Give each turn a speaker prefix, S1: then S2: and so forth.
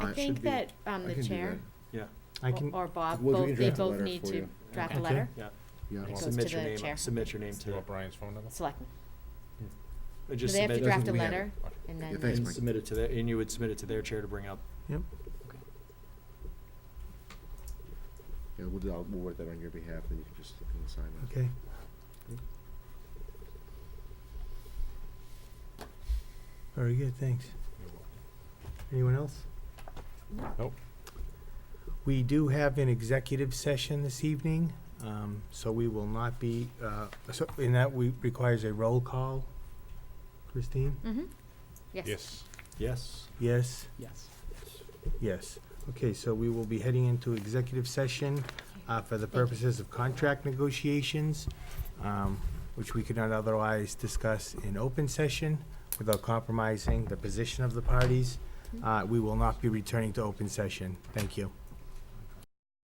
S1: I
S2: that should
S1: think
S2: be-
S1: that um,
S3: I
S1: the
S3: can do
S1: chair
S2: Yeah,
S4: I
S1: or-
S4: can,
S1: or Bob,
S3: We'll do- we
S1: both,
S3: can
S1: they
S3: draft a
S1: both
S3: letter
S1: need
S3: for
S1: to
S3: you.
S1: draft a
S4: Okay.
S1: letter.
S2: yeah.
S3: Yeah.
S1: It goes
S2: Submit
S1: to
S2: your
S1: the
S2: name, uh,
S1: chair.
S2: submit your name
S3: Do you
S2: to,
S3: want Brian's phone number?
S1: Selectmen.
S2: uh,
S1: Do
S2: just
S1: they have to
S2: submit,
S3: Doesn't
S1: draft a
S3: we have
S1: letter
S3: it?
S1: and
S3: Yeah,
S1: then?
S3: thanks,
S1: we-
S3: Mike.
S2: submit it to their, and you would submit it to their chair to bring up.
S4: yep,
S3: Yeah, we'll, do- I'll- we'll work that on your behalf, then you can just look and sign that.
S4: okay. Very good, thanks. Anyone else?
S3: Nope.
S4: We do have an executive session this evening, um, so we will not be, uh, so, and that we, requires a roll call. Christine?
S1: Mhm. Yes.
S3: Yes.
S2: Yes.
S4: Yes,
S2: Yes.
S4: yes. Okay, so we will be heading into executive session, uh, for the purposes of contract negotiations, um, which we could not otherwise discuss in open session without compromising the position of the parties. Uh, we will not be returning to open session. Thank you.